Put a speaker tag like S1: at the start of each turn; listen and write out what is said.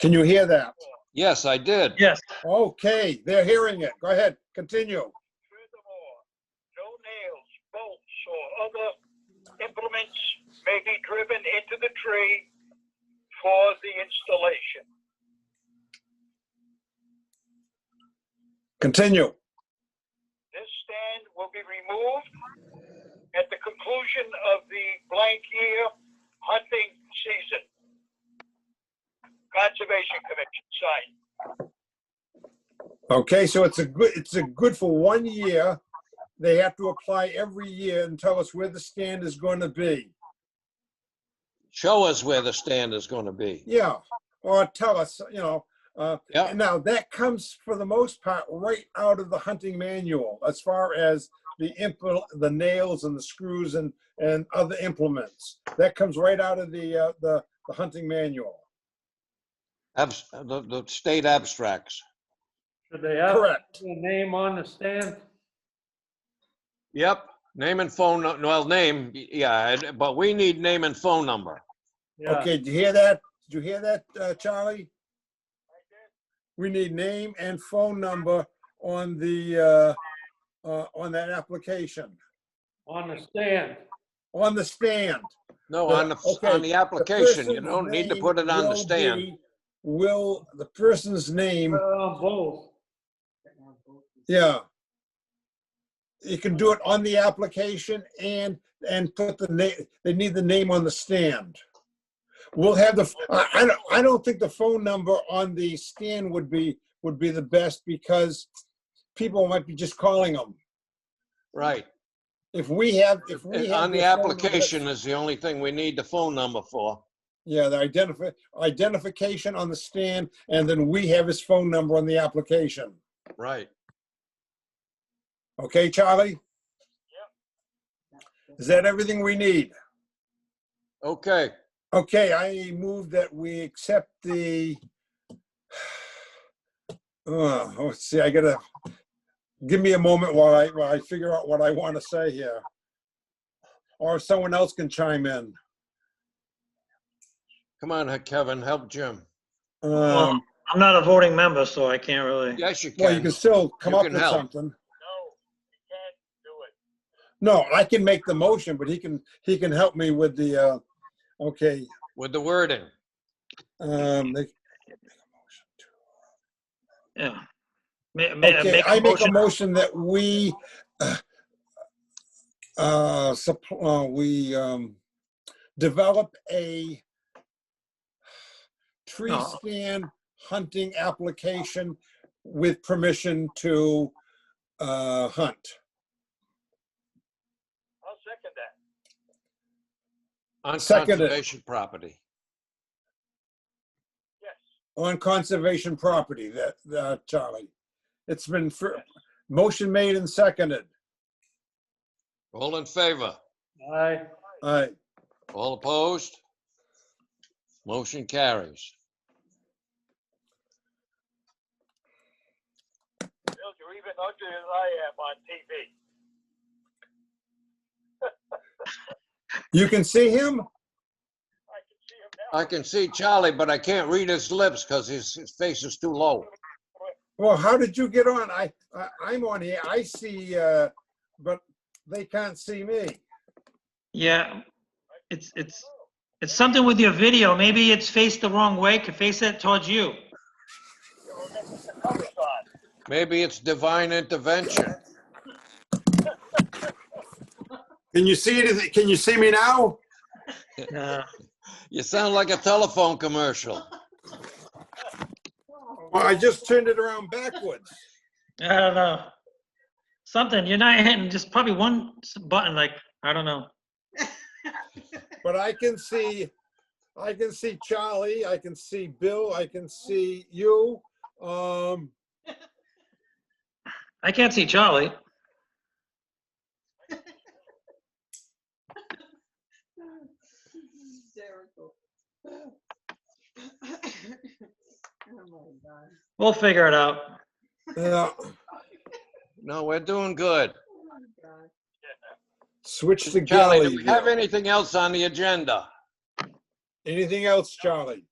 S1: Can you hear that?
S2: Yes, I did.
S3: Yes,
S1: Okay, they're hearing it. Go ahead, continue.
S4: Furthermore, no nails, bolts, or other implements may be driven into the tree for the installation.
S1: Continue.
S4: This stand will be removed at the conclusion of the blank year hunting season. Conservation Commission signed.
S1: Okay, so it's a good, it's a good for one year. They have to apply every year and tell us where the stand is going to be.
S2: Show us where the stand is going to be.
S1: Yeah, or tell us, you know. Uh,
S2: Yeah.
S1: and now that comes for the most part right out of the hunting manual as far as the impl- the nails and the screws and, and other implements. That comes right out of the, uh, the, the hunting manual.
S2: Abs- the, the state abstracts.
S3: should they have the
S1: Correct.
S3: name on the stand?
S2: Yep. Name and phone, nu- well, name, yeah, and- but we need name and phone number.
S3: Yeah.
S1: Okay, did you hear that? Did you hear that, uh, Charlie? We need name and phone number on the, uh, uh, on that application,
S3: On the stand.
S1: on the stand.
S2: No,
S1: The-
S2: on the,
S1: okay,
S2: on the application, you
S1: person's
S2: don't need to
S1: name
S2: put it on the
S1: will
S2: stand.
S1: be- Will, the person's name,
S3: Put it on both.
S1: yeah. You can do it on the application and, and put the name, they need the name on the stand. We'll have the, I, I don't, I don't think the phone number on the stand would be, would be the best because people might be just calling them.
S2: Right. Uh,
S1: If we have, if we have.
S2: On the
S1: their phone number-
S2: application is the only thing we need the phone number for.
S1: Yeah, the identify, identification on the stand, and then we have his phone number on the application.
S2: Right.
S1: Okay, Charlie? Is that everything we need?
S2: Okay.
S1: Okay, I move that we accept the, oh, let's see, I gotta, give me a moment while I, while I figure out what I want to say here. Or if someone else can chime in.
S2: Come on, Kevin, help Jim.
S1: Um,
S3: I'm not a voting member, so I can't really.
S2: Yes, you
S1: Well, you
S2: can.
S1: can still come
S2: You
S1: up
S2: can
S1: with
S2: help.
S1: something.
S4: No, you can't do it.
S1: No, I can make the motion, but he can, he can help me with the, uh, okay,
S2: With the wording.
S1: um, they-
S3: Yeah. Ma- ma-
S1: Okay,
S3: make a
S1: I make a
S3: motion.
S1: motion that we, uh, uh, supp- uh, we, um, develop a tree
S3: No.
S1: stand hunting application with permission to, uh, hunt.
S4: I'll second that.
S2: On
S1: Seconded.
S2: conservation property.
S4: Yes.
S1: on conservation property, that, that, Charlie. It's been, fir- motion made and seconded.
S2: All in favor?
S3: Aye.
S1: All right,
S2: All opposed? Motion carries.
S4: Bill, you're even uglier than I am on TV.
S1: you can see him?
S4: I can see him now.
S2: I can see Charlie, but I can't read his lips because his, his face is too low.
S1: Well, how did you get on? I, I- I'm on here, I see, uh, but they can't see me.
S5: Yeah, it's, it's, it's something with your video. Maybe it's faced the wrong way, could face it towards you.
S4: Oh, that's what the cover's on.
S2: Maybe it's divine intervention.
S1: Can you see it? Can you see me now?
S5: Uh,
S2: You sound like a telephone commercial.
S1: Well, I just turned it around backwards.
S5: I don't know. Something, you're not hitting just probably one s- button, like, I don't know.
S1: But I can see, I can see Charlie, I can see Bill, I can see you. Um,
S5: I can't see Charlie.
S6: Hysterical. Oh my God.
S5: We'll figure it out.
S1: yeah,
S2: No, we're doing good.
S6: Oh my God.
S1: switch to
S2: Charlie,
S1: Gally.
S2: do we have anything else on the agenda?
S1: Anything else, Charlie?